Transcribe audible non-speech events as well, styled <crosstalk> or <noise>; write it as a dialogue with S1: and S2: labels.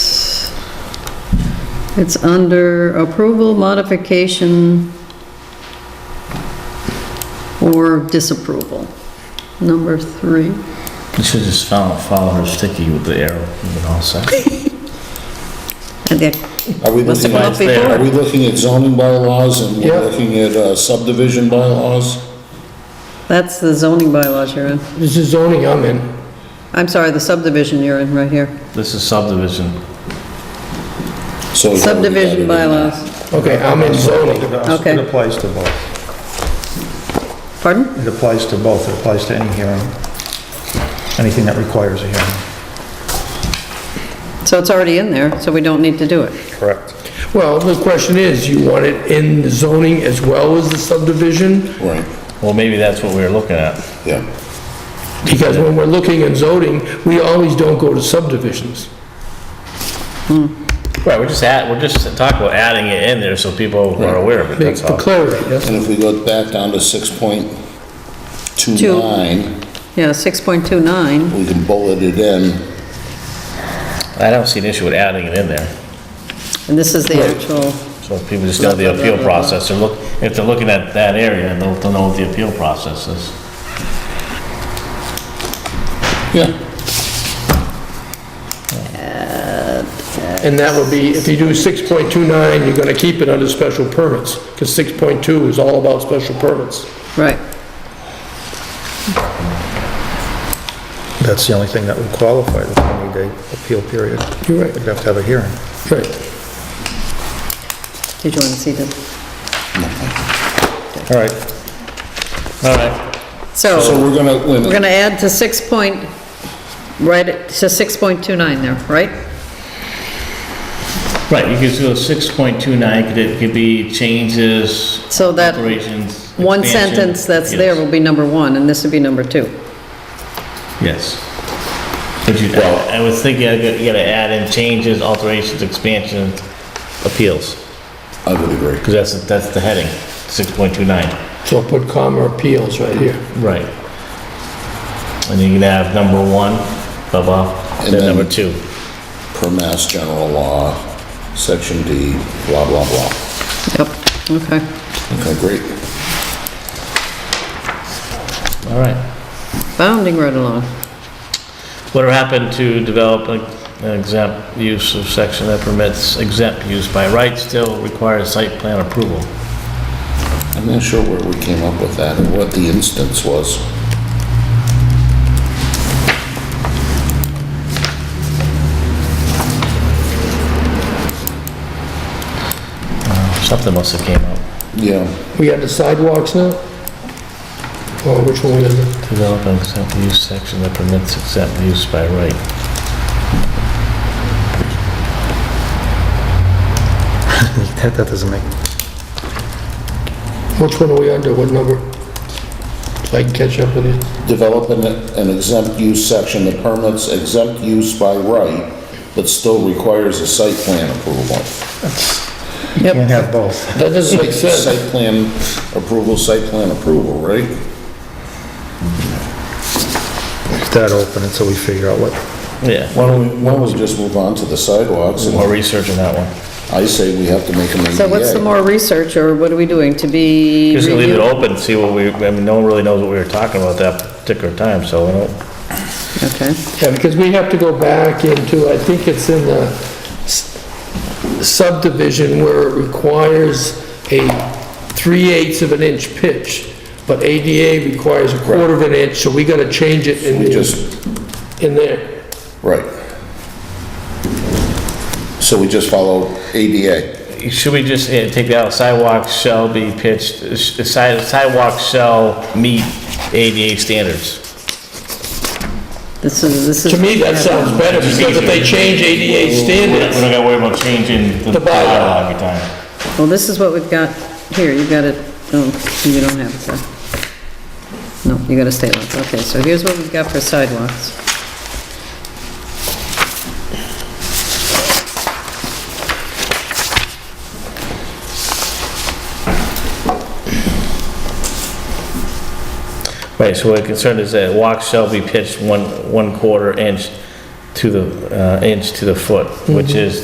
S1: It's under approval, modification, or disapproval, number three.
S2: You should just follow, follow her sticky with the arrow, and then all set.
S1: And that-
S3: Are we
S1: Must have
S3: looking,
S1: come up
S2: Mine's there.
S3: are
S1: before.
S3: we looking at zoning bylaws and
S4: Yeah.
S3: we're looking at uh, subdivision bylaws?
S1: That's the zoning bylaws you're in.
S4: This is zoning I'm in.
S1: I'm sorry, the subdivision you're in right here.
S2: This is subdivision.
S3: So it's gotta be
S1: Subdivision
S3: added in.
S1: bylaws.
S4: Okay, I'm in zoning.
S1: Okay.
S5: It applies to both.
S1: Pardon?
S5: It applies to both. It applies to any hearing, anything that requires a hearing.
S1: So it's already in there, so we don't need to do it.
S5: Correct.
S4: Well, the question is, you want it in the zoning as well as the subdivision?
S3: Right,
S2: Well, maybe that's what we were looking at.
S3: yeah.
S4: Because when we're looking in zoning, we always don't go to subdivisions.
S2: Right, we're just at, we're just talking about adding it in there so people are aware of it,
S4: Make
S2: that's
S4: for
S2: all.
S4: clarity, yes?
S3: And if we go back down to 6.29,
S1: Yeah, 6.29,
S3: we can bullet it in.
S2: I don't see an issue with adding it in there.
S1: and this is the actual,
S2: So if people just know the appeal process, and look, if they're looking at that area, they'll, they'll know what the appeal process is.
S3: Yeah,
S4: And that would be, if you do 6.29, you're gonna keep it under special permits, because 6.2 is all about special permits.
S1: right.
S5: That's the only thing that would qualify the 20-day appeal period.
S4: You're right.
S5: You'd have to have a hearing. <laughs>
S4: Right.
S1: Did you want to see the,
S2: All right. All right.
S3: so
S1: so
S3: we're gonna, wait a
S1: we're
S3: minute.
S1: going to add to 6 point, right, to 6.29 there, right?
S2: Right, you could go six point two nine, could it, could be changes,
S1: So that
S2: operations.
S1: one
S2: expansion.
S1: sentence that's there
S2: Yes.
S1: will be number one, and this would be number two.
S2: Yes. But you, I I was thinking, I got- you gotta add in changes, alterations, expansions, appeals,
S3: I would agree.
S2: because that's, that's the heading, six point two nine.
S4: So put comma appeals right here.
S2: Right. And then you can have number one, blah, blah,
S3: And
S2: then
S3: then-
S2: number two.
S3: Per Mass General Law, Section D, blah, blah, blah.
S1: Yep, okay.
S3: Okay, great.
S2: All right.
S1: Bounding right along.
S2: What happened to develop a- an exempt use of section that permits exempt use by right still requires site plan approval?
S3: I'm not sure where we came up with that or what the instance was.
S2: Something must have came up.
S3: Yeah,
S4: We got the sidewalks now? Or which one is it?
S2: Develop an exempt use section that permits exempt use by right.
S5: That that doesn't make,
S4: Which one are we under, what number? So I can catch up with you.
S3: develop an an exempt use section that permits exempt use by right, but still requires a site plan approval.
S1: Yep.
S5: can't have both.
S4: That
S3: <laughs>
S4: doesn't make sense.
S3: Site plan approval, site plan approval, right?
S5: Leave that open until we figure out what,
S2: Yeah,
S3: Why don't we, why don't we just move on to the sidewalks?
S2: more
S3: And
S2: research on that one.
S3: I say we have to make an ADA.
S1: So what's the more research, or what are we doing, to be
S2: Just leave it
S1: reviewed?
S2: open, see what we, I mean, no one really knows what we were talking about that particular time, so I don't.
S1: Okay,
S4: Yeah, because we have to go back into, I think it's in the s- subdivision where it requires a three-eighths of an inch pitch, but ADA requires a quarter of an inch, so we gotta change it in
S3: We
S4: the,
S3: just,
S4: in there.
S3: right. So we just follow ADA.
S2: Should we just eh, take that out, sidewalks shall be pitched, eh, si- sidewalks shall meet ADA standards?
S1: this is, this is.
S4: To me, that sounds better, because if they change ADA
S2: We're
S4: standards,
S2: not gonna worry about changing the
S4: The bylaw.
S2: bylaw every time.
S1: Well, this is what we've got here, you got it, oh, you don't have it there. No, you got a statement, okay, so here's what we've got for sidewalks.
S2: Right, so what concerned is that walks shall be pitched one, one quarter inch to the, uh, inch to the foot, which is